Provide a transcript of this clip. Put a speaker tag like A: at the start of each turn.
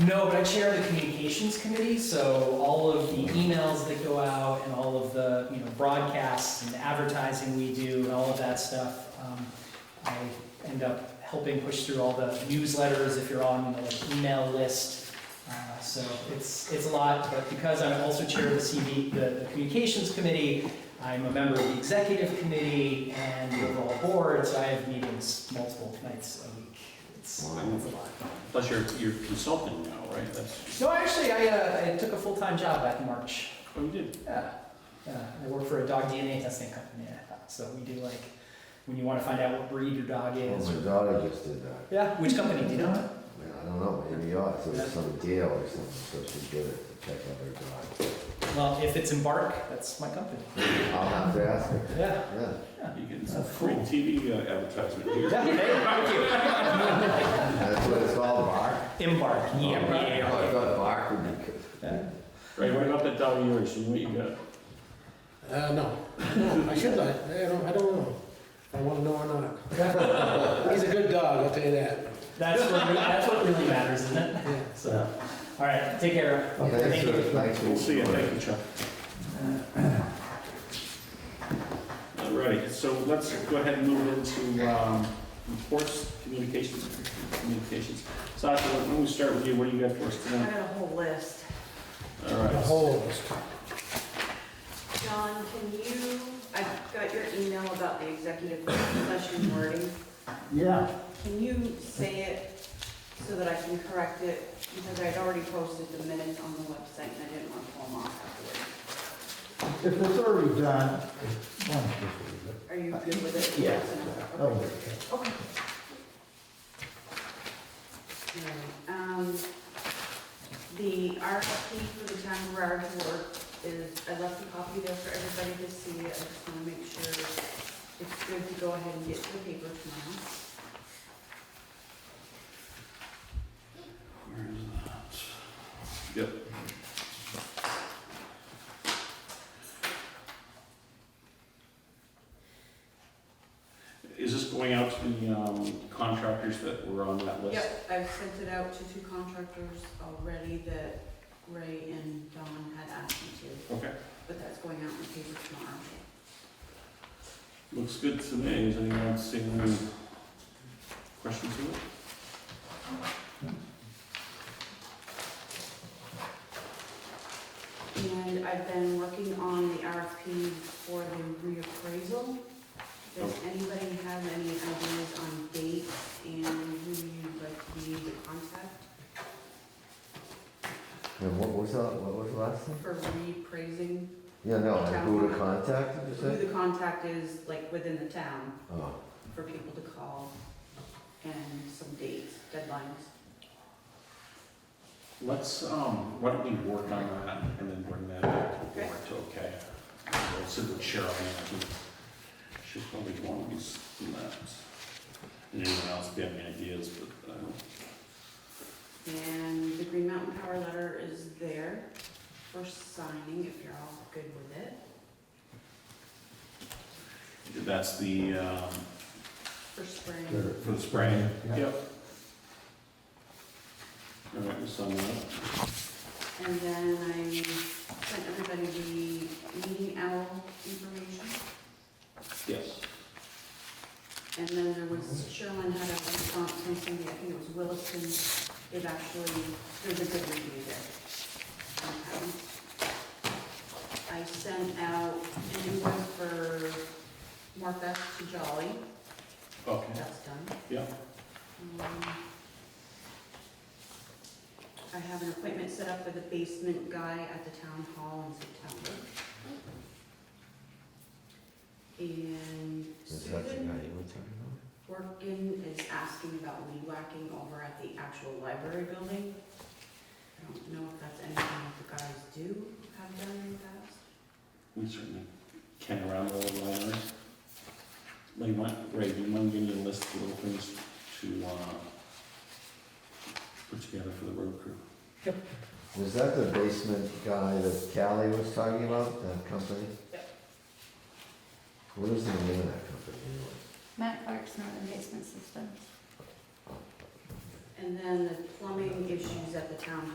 A: No, but I chair the communications committee, so all of the emails that go out and all of the, you know, broadcasts and advertising we do and all of that stuff, um, I end up helping push through all the newsletters if you're on the like, email list. Uh, So it's, it's a lot, but because I'm also chair of the CV, the the communications committee, I'm a member of the executive committee and the overall board, so I have meetings multiple nights a week. It's it's a lot.
B: Plus, you're, you're consulting now, right? That's
A: No, actually, I, uh, I took a full-time job back in March.
B: what you did.
A: Yeah, yeah. I work for a dog DNA testing company. So we do like when you want to find out what breed your dog
C: Well,
A: is.
C: my daughter just did that.
A: Yeah, which company do you know?
C: I mean, I don't know, maybe ours, it was some deal or something, so she did it to check out her dog.
A: Well, if it's Embark, that's my company.
C: I'll have to ask her.
A: Yeah.
C: Yeah,
B: You get some free TV advertisement here.
A: Yeah, hey,
C: that's what it's called, Oh, bark.
A: thank you. Embark.
C: I
A: Yeah,
C: thought bark would be good.
A: yeah.
B: Right, what about that dog of yours? What you got?
D: Uh, no, no, I should not, I don't, I don't know. If I wanna know or not. He's a good dog, I'll tell you that.
A: That's what re- that's what really matters, isn't it?
D: Yeah.
A: So, all right, take care.
C: Thanks for, thanks for.
B: We'll see you, thank you, Chuck. All right, so let's go ahead and move into um, reports, communications, communications. Sasha, why don't we start with you? What do you got for us
E: I
B: tonight?
E: got a whole list.
B: All
D: The
B: right.
D: whole,
E: John, can you, I got your email about the executive session wording.
F: Yeah,
E: Can you say it so that I can correct it? Because I'd already posted the minutes on the website and I didn't want to pull them off afterwards.
F: if it's already done, why don't you just leave
E: Are you good with it?
F: Yeah.
E: Yes.
F: it?
E: Okay.
F: That'll work.
E: Okay. Alright, Um, the RFP for the town garage work is, I left a copy there for everybody to see, I just wanna make sure it's good to go ahead and get to the paper tomorrow.
B: Where is that? Yep. Is this going out to the um, contractors that were on that list?
E: Yep, I've sent it out to two contractors already that Ray and Don had asked me to,
B: Okay,
E: but that's going out in the paper tomorrow.
B: looks good to me. Is anyone else seeing any questions to it?
E: And I've been working on the RFP for the reappraisal. Does anybody have any ideas on dates and who you'd like to be the contact
C: And what was that, what was the last thing?
E: for reappraising?
C: Yeah, no, and who to contact, did you
E: Who
C: say?
E: the contact is, like, within the town,
C: Oh,
E: for people to call, and some dates, deadlines.
B: Let's, um, why don't we work on that and then bring that back to the
E: Okay.
B: board, okay? We'll sit with Cheryl on that, too. She's probably one of these, and that. And anyone else have any ideas, but, uh,
E: And the Green Mountain Power letter is there for signing, if you're all good with it.
B: that's the, um,
E: For spring,
F: Sure.
B: for the spring.
F: Yeah.
B: Yep. All right, we'll sum it up.
E: and then I sent everybody the meeting owl information.
B: Yes.
E: And then there was, Sherlin had a response from somebody, I think it was Williston, it actually, there's a good review there. Um, I sent out an invoice for Martha to Jolly,
B: Okay,
E: that's done.
B: yeah,
E: Um, I have an appointment set up for the basement guy at the town hall in September. And
C: is that the guy you
E: Susan
C: were talking about?
E: Workin is asking about weed whacking over at the actual library building. I don't know if that's anything that the guys do have done in the past.
B: we certainly can around the little libraries. Lee, you mind, Ray, do you mind giving me a list of little things to, uh, put together for the road crew?
C: Was that the basement guy that Callie was talking about, that company?
E: Yep.
C: What is the name of that company anyway?
G: Matt Clark's not in basement systems.
E: And then the plumbing issues at the town